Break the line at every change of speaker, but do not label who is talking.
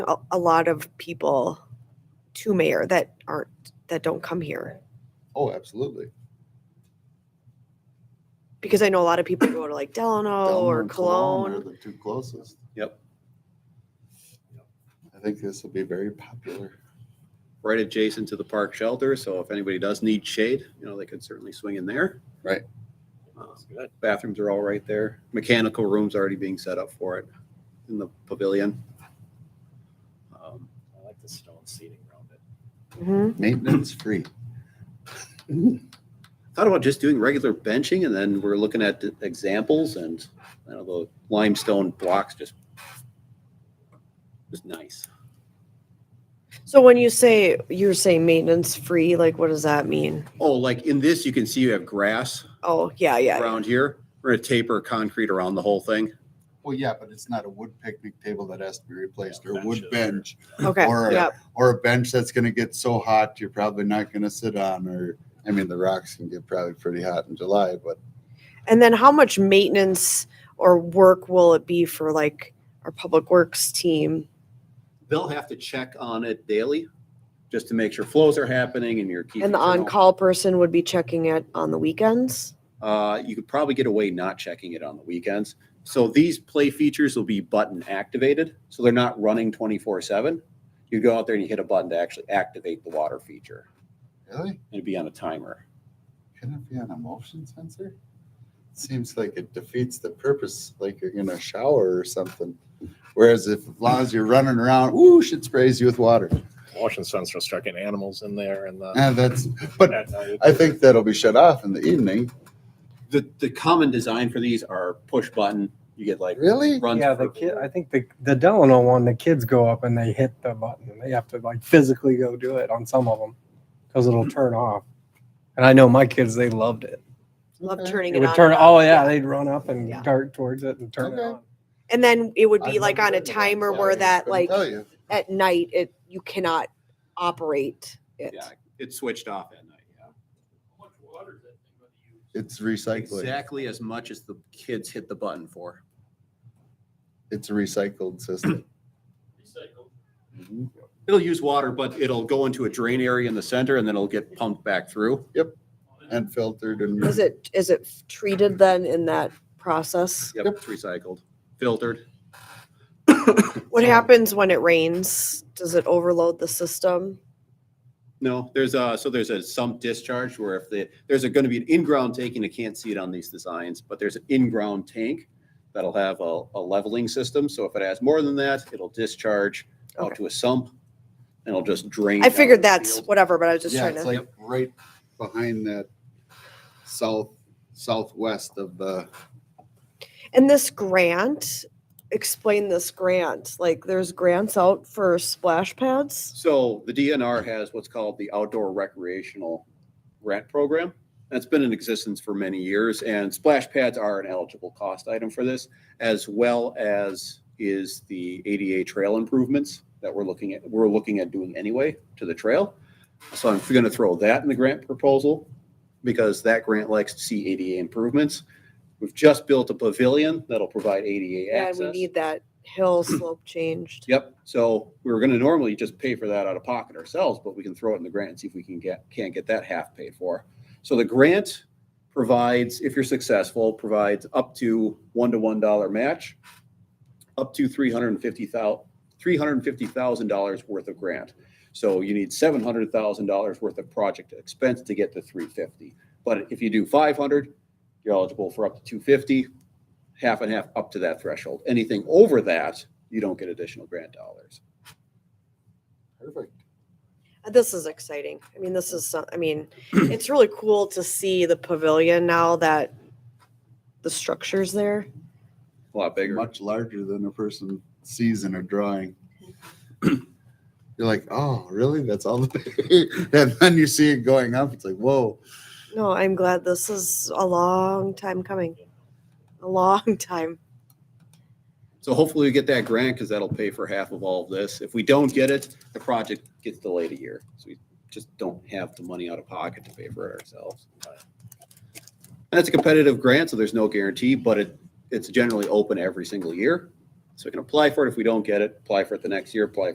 a, a lot of people to mayor that aren't that don't come here
Oh, absolutely.
because I know a lot of people go to like Delano,
Delano
Oh,
uh,
or
and Cologne
Cologne.
Are the two closest.
Yep.
I think this will be very popular.
right adjacent to the park shelter, so if anybody does need shade, you know, they could certainly swing in there.
Right.
Uh, Bathrooms are all right there. Mechanical rooms already being set up for it in the pavilion. Um,
I like the stone seating around it.
Mhm.
Maintenance free.
Thought about just doing regular benching and then we're looking at the examples and, you know, the limestone blocks just just nice.
So when you say you're saying maintenance free, like what does that mean?
Oh, like in this, you can see you have grass
Oh yeah, yeah.
around here. We're gonna taper concrete around the whole thing.
Well, yeah, but it's not a wood picnic table that has to be replaced or a wood bench
Benches
Okay.
Or a-
yep.
or a bench that's going to get so hot you're probably not going to sit on or I mean the rocks can get probably pretty hot in July, but
And then how much maintenance or work will it be for like our public works team?
They'll have to check on it daily, just to make sure flows are happening and you're keeping.
And the
journal.
on-call person would be checking it on the weekends.
Uh, you could probably get away not checking it on the weekends. So these play features will be button activated, so they're not running twenty-four seven. You go out there and you hit a button to actually activate the water feature.
really?
It'd be on a timer.
Can it be on a motion sensor? Seems like it defeats the purpose, like you're gonna shower or something. Whereas if, as long as you're running around, whoosh, it sprays you with water.
Motion sensor start getting animals in there and the.
And that's, but
at night.
I think that'll be shut off in the evening.
The, the common design for these are push button. You get like
Really?
runs.
Yeah, the
for-
kid. I think the the Delano one, the kids go up and they hit the button, and they have to like physically go do it on some of them because it'll turn off. And I know my kids, they loved it.
Love
Okay.
turning
It
it,
would
on.
turn.
and off,
Oh yeah, they'd run up and
Yeah.
dart towards it and turn it
Okay.
on.
And then it would
I've
be like
never
on a
been to one,
timer
so
where
I
that
couldn't
like
tell you.
at night it you cannot operate it.
Yeah, it's switched off at night, yeah.
It's recycling.
Exactly as much as the kids hit the button for.
It's a recycled system. Mm-hmm.
It'll use water, but it'll go into a drain area in the center and then it'll get pumped back through.
And filtered
Is
and
it is it treated then in that process?
Yep, it's recycled, filtered.
What
So-
happens when it rains? Does it overload the system?
No, there's a, so there's a sump discharge where if the, there's going to be an in-ground tanking, I can't see it on these designs, but there's an in-ground tank that'll have a, a leveling system. So if it has more than that, it'll discharge out
Okay.
to a sump and it'll just drain.
I
down
figured
the
that's
field.
whatever, but I was just
yeah,
trying
it's
to.
like right behind that south, southwest of the,
and this grant, explain this grant. Like there's grants out for splash pads.
So the DNR has what's called the Outdoor Recreational Grant Program. That's been in existence for many years, and splash pads are an eligible cost item for this, as well as is the ADA trail improvements that we're looking at, we're looking at doing anyway to the trail. So I'm going to throw that in the grant proposal because that grant likes to see ADA improvements. We've just built a pavilion that'll provide ADA
Yeah,
access.
and we need that hill slope changed.
Yep, so we were gonna normally just pay for that out of pocket ourselves, but we can throw it in the grant and see if we can get, can't get that half paid for. So the grant provides, if you're successful, provides up to one-to-one dollar match, up to three hundred and fifty thou, three hundred and fifty thousand dollars worth of grant. So you need seven hundred thousand dollars worth of project expense to get to three fifty. But if you do five hundred, you're eligible for up to two fifty, half and half up to that threshold. Anything over that, you don't get additional grant dollars.
perfect.
This is exciting. I mean, this is, some- I mean, it's really cool to see the pavilion now that the structure's there.
A lot bigger.
much larger than a person sees in a drawing. You're like, oh, really? That's all the and then you see it going up. It's like, whoa.
No, I'm glad this is a long time coming. A long time.
So hopefully we get that grant because that'll pay for half of all of this. If we don't get it, the project gets delayed a year. So we just don't have the money out of pocket to pay for it ourselves. And it's a competitive grant, so there's no guarantee, but it, it's generally open every single year. So we can apply for it. If we don't get it, apply for it the next year, apply